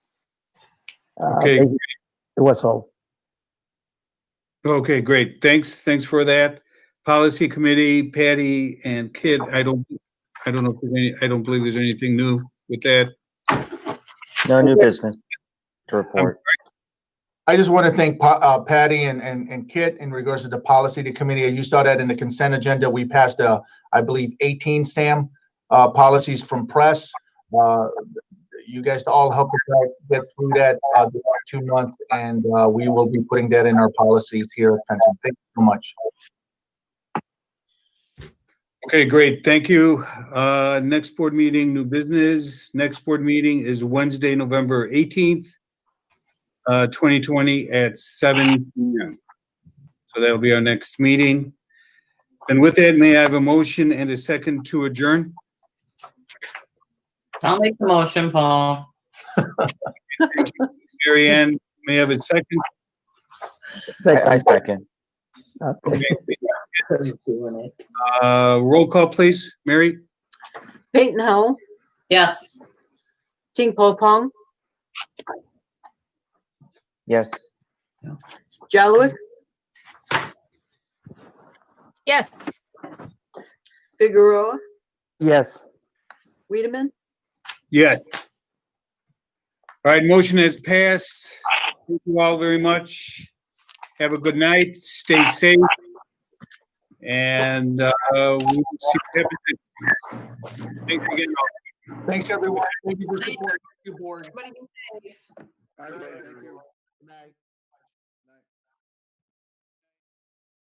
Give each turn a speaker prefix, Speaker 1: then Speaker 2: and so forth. Speaker 1: Uh,
Speaker 2: Okay.
Speaker 1: they- It was all.
Speaker 2: Okay, great. Thanks, thanks for that. Policy Committee, Patty and Kit, I don't, I don't know, if there's any. I don't believe there's anything new with that.
Speaker 3: No new business to report.
Speaker 4: I just want to thank Pa- uh, Patty and, and, and Kit in regards to the policy to committee. You saw that in the consent agenda. We passed, uh, I believe, eighteen, Sam, uh, policies from press. Uh, you guys all helped us out get through that, uh, the last two months, and, uh, we will be putting that in our policies here. at Fenton. Thank you so much.
Speaker 2: Okay, great. Thank you. Uh, next board meeting, new business. Next board meeting is Wednesday, November 18th, uh, 2020 at seven p.m. So that'll be our next meeting. And with that, may I have a motion and a second to adjourn?
Speaker 5: I'll make the motion, Paul.
Speaker 2: Mary Ann, may I have a second?
Speaker 3: I I second.
Speaker 1: Uh,
Speaker 2: Okay. Uh, roll call, please. Mary?
Speaker 6: Peyton Ho,
Speaker 5: Yes.
Speaker 6: Ting Po Pong,
Speaker 3: Yes.
Speaker 6: Jalowick,
Speaker 7: Yes.
Speaker 6: Figueroa,
Speaker 1: Yes.
Speaker 6: Wiedemann.
Speaker 2: Yes. All right, motion has passed. Thank you all very much. Have a good night. Stay safe. And uh, we'll see what happens. Thanks again.
Speaker 4: Thanks, everyone. Thank you for supporting. Thank you, board. All right, thank you. Good night.